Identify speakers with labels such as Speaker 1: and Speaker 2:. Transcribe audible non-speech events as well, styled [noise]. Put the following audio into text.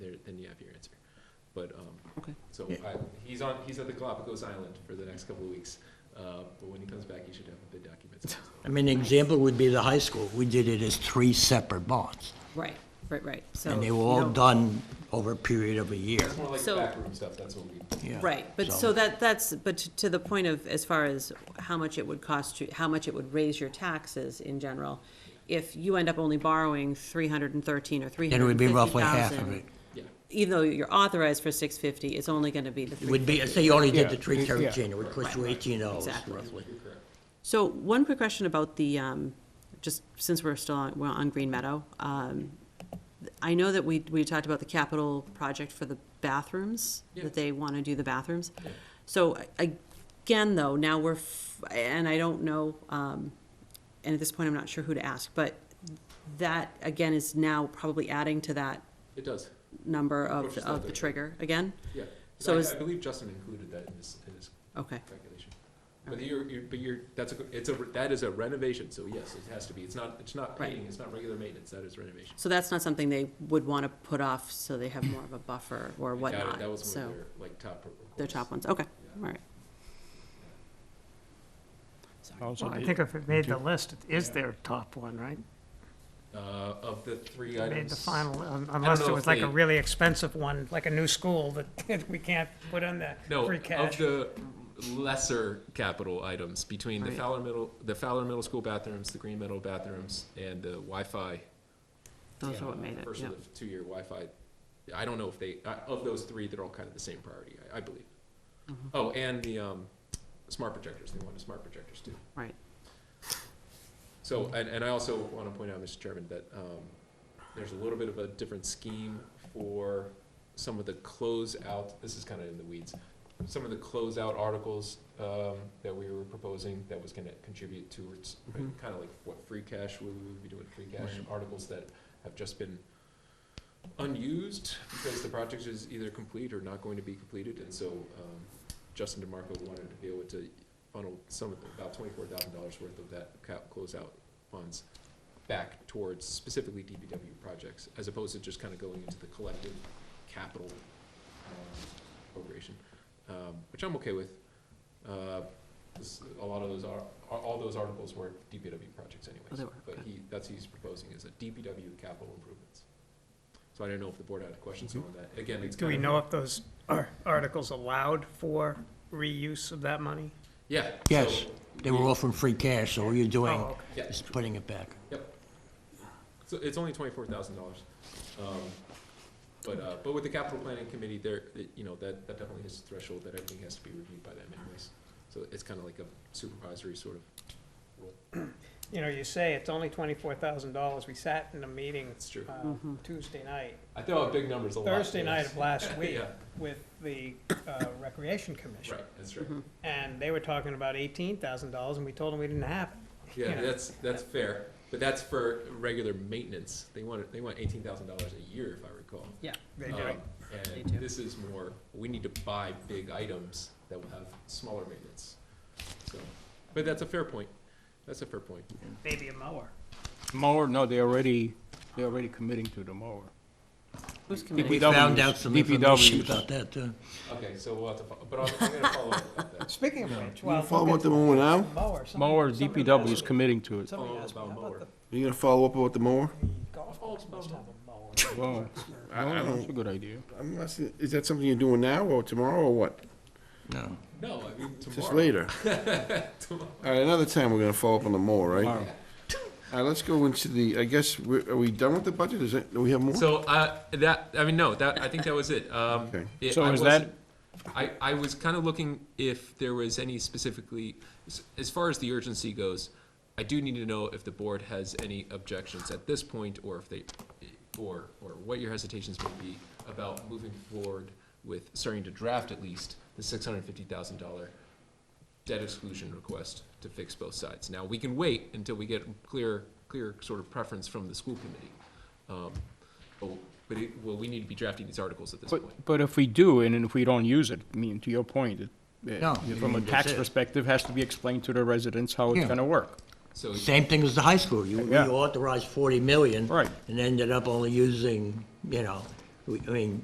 Speaker 1: um, he's on, he's at the Galapagos Island for the next couple of weeks. Uh, But when he comes back, he should have the bid documents.
Speaker 2: I mean, an example would be the high school. We did it as three separate bonds,
Speaker 3: Right, right, right, so.
Speaker 2: and they
Speaker 3: you
Speaker 2: were all
Speaker 3: don't-
Speaker 2: done over a period of a year.
Speaker 1: It's more like the
Speaker 3: So-
Speaker 1: backroom stuff, that's what we,
Speaker 2: Yeah.
Speaker 3: Right, but so that, that's, but to- to the point of, as far as how much it would cost you, how much it would raise your taxes in general, if you end up only borrowing three hundred and thirteen or three
Speaker 2: Then it
Speaker 3: hundred
Speaker 2: would
Speaker 3: and
Speaker 2: be
Speaker 3: fifty
Speaker 2: roughly half of
Speaker 3: thousand,
Speaker 2: it.
Speaker 1: yeah.
Speaker 3: even though you're authorized for six fifty, it's only gonna be the
Speaker 2: It
Speaker 3: three
Speaker 2: would
Speaker 3: fifty.
Speaker 2: be, say you only did the
Speaker 4: Yeah,
Speaker 2: three
Speaker 4: yeah.
Speaker 2: thirteen, it would cost you eighteen dollars
Speaker 3: Exactly.
Speaker 2: roughly.
Speaker 3: So one quick question about the, um, just since we're still on, we're on Green Meadow. um, I know that we, we talked about the capital project for the bathrooms,
Speaker 1: Yeah.
Speaker 3: that they want to do the bathrooms. So a- again, though, now we're, f- and I don't know, um, and at this point, I'm not sure who to ask, but that, again, is now probably adding to that
Speaker 1: It does,
Speaker 3: number of,
Speaker 1: Which is
Speaker 3: of the
Speaker 1: not-
Speaker 3: trigger again?
Speaker 1: yeah.
Speaker 3: So
Speaker 1: I-
Speaker 3: is-
Speaker 1: I believe Justin included that in his, in his
Speaker 3: Okay,
Speaker 1: calculation. But you're, you're, but you're, that's a, it's a, that is a renovation, so yes, it has to be, it's not, it's not
Speaker 3: Right.
Speaker 1: painting, it's not regular maintenance, that is renovation.
Speaker 3: so that's not something they would want to put off, so they have more of a buffer or
Speaker 1: I doubt it.
Speaker 3: whatnot,
Speaker 1: That was one
Speaker 3: so.
Speaker 1: of their, like, top. requests.
Speaker 3: They're top ones, okay, all right.
Speaker 4: Also,
Speaker 5: Well, I
Speaker 4: the-
Speaker 5: think if it made the
Speaker 4: Did
Speaker 5: list, it is their top one, right?
Speaker 1: Uh, of the three
Speaker 5: It
Speaker 1: items.
Speaker 5: Made the final, un- unless
Speaker 1: know
Speaker 5: it
Speaker 1: if
Speaker 5: was like
Speaker 1: they-
Speaker 5: a really expensive one, like a new school that [laughs] we can't put in the
Speaker 1: No,
Speaker 5: free
Speaker 1: of
Speaker 5: cash.
Speaker 1: the lesser capital items, between the
Speaker 3: Right.
Speaker 1: Fowler Middle, the Fowler Middle School bathrooms, the Green Meadow bathrooms, and the Wi-Fi.
Speaker 3: Those
Speaker 1: uh,
Speaker 3: are what made it,
Speaker 1: First
Speaker 3: yeah.
Speaker 1: of the two-year Wi-Fi, I don't know if they, uh, of those three, they're all kind of the same priority, I, I believe.
Speaker 3: Mm-hmm.
Speaker 1: Oh, and the, um, smart projectors, they wanted smart projectors too.
Speaker 3: Right.
Speaker 1: So, and, and I also want to point out, Mr. Chairman, that um, there's a little bit of a different scheme for some of the closeout, this is kind of in the weeds, some of the closeout articles um, that we were proposing that was going to contribute towards,
Speaker 2: Mhm.
Speaker 1: kind of like what free cash, we would be doing free cash articles that have just been unused because the project is either complete or not going to be completed, and so um, Justin DeMarco wanted to be able to funnel some, of the- about twenty-four thousand dollars worth of that cap, closeout funds back towards specifically DPW projects, as opposed to just kind of going into the collective capital um, appropriation, um, which I'm okay with. Uh, 'cause A lot of those are, are- all those articles were DPW projects
Speaker 3: Oh, they
Speaker 1: anyways,
Speaker 3: were,
Speaker 1: but
Speaker 3: okay.
Speaker 1: he, that's what he's proposing, is a DPW capital improvements. So I don't know if the board had questions on that. Again, it's
Speaker 5: Do
Speaker 1: kind
Speaker 5: we
Speaker 1: of-
Speaker 5: know if those ar- articles allowed for reuse of that money?
Speaker 1: Yeah.
Speaker 2: Yes,
Speaker 1: so
Speaker 2: they were
Speaker 1: we-
Speaker 2: all from free cash, so all you're doing
Speaker 5: Oh,
Speaker 1: Yeah.
Speaker 2: is putting it back.
Speaker 1: Yep. So it's only twenty-four thousand dollars. Um, But, uh, but with the capital planning committee, there, it- you know, that, that definitely is a threshold that everything has to be reviewed by them anyways. So it's kind of like a supervisory sort of,
Speaker 5: You know, you say it's only twenty-four thousand dollars. We sat in a meeting
Speaker 1: It's true.
Speaker 5: uh, Tuesday night,
Speaker 1: I throw out big numbers a lot.
Speaker 5: Thursday
Speaker 1: [laughs]
Speaker 5: night
Speaker 1: yes.
Speaker 5: of last week
Speaker 1: Yeah.
Speaker 5: with the uh, Recreation Commission.
Speaker 1: Right, that's right.
Speaker 5: And they were talking about eighteen thousand dollars and we told them we didn't have it.
Speaker 1: Yeah,
Speaker 5: Yeah.
Speaker 1: that's, that's fair, but that's for regular maintenance. They want, they want eighteen thousand dollars a year, if I recall.
Speaker 3: Yeah.
Speaker 5: They
Speaker 1: Um,
Speaker 5: did.
Speaker 3: They
Speaker 1: And
Speaker 3: do.
Speaker 1: this is more, we need to buy big items that will have smaller maintenance. So, but that's a fair point. That's a fair point.
Speaker 5: Maybe a mower.
Speaker 4: Mower, no, they already, they're already committing to the mower.
Speaker 3: Who's
Speaker 2: We
Speaker 3: committed?
Speaker 4: DPWs,
Speaker 2: found out some information
Speaker 4: DPWs.
Speaker 2: about that, too.
Speaker 1: Okay, so we'll have to, fo- but I'm, I'm gonna follow up about [laughs] that.
Speaker 5: Speaking of which, well.
Speaker 6: You follow
Speaker 5: look
Speaker 6: up
Speaker 5: at
Speaker 6: the mower now?
Speaker 5: Mower. somebody-
Speaker 4: [laughs] Mower,
Speaker 5: somebody
Speaker 4: DPW
Speaker 5: asked
Speaker 4: is
Speaker 5: me-
Speaker 4: committing to it.
Speaker 5: Somebody
Speaker 1: Follow
Speaker 5: asked me,
Speaker 1: about
Speaker 5: how
Speaker 1: mower.
Speaker 5: about the
Speaker 6: You gonna follow up about the mower?
Speaker 5: the golf course must have a mower?
Speaker 4: Well, I- I- that's a good idea.
Speaker 6: I'm not, se- is that something you're doing now or tomorrow or what?
Speaker 2: No.
Speaker 1: No, I mean, tomorrow.
Speaker 6: Just later.
Speaker 1: [laughs] Tomorrow.
Speaker 6: All right, another time we're gonna follow up on the mower, right?
Speaker 4: Tomorrow.
Speaker 6: All right, let's go into the, I guess, we're- are we done with the budget? Is it, do we have more?
Speaker 1: So, uh, that, I mean, no, that, I think that was it. Um,
Speaker 6: Okay.
Speaker 1: it-
Speaker 4: So
Speaker 1: I
Speaker 4: is
Speaker 1: wasn't- I, I was kind of looking if there was any specifically, as- as far as the urgency goes, I do need to know if the board has any objections at this point, or if they, or, or what your hesitations may be about moving forward with starting to draft at least the six hundred and fifty thousand dollar debt exclusion request to fix both sides. Now, we can wait until we get clear, clear sort of preference from the school committee. Um, But, but it, well, we need to be drafting these articles at this point.
Speaker 4: But, but if we do, and then if we don't use it, I mean, to your point, it-
Speaker 2: No,
Speaker 4: uh,
Speaker 2: you
Speaker 4: from a
Speaker 2: mean that's
Speaker 4: tax
Speaker 2: it.
Speaker 4: perspective, has to be explained to the residents how it's
Speaker 2: Yeah.
Speaker 4: gonna work.
Speaker 1: So,
Speaker 2: Same thing as the high school. You you
Speaker 4: Yeah.
Speaker 2: authorized 40 million.
Speaker 4: Right.
Speaker 2: And ended up only using, you know, we- I mean,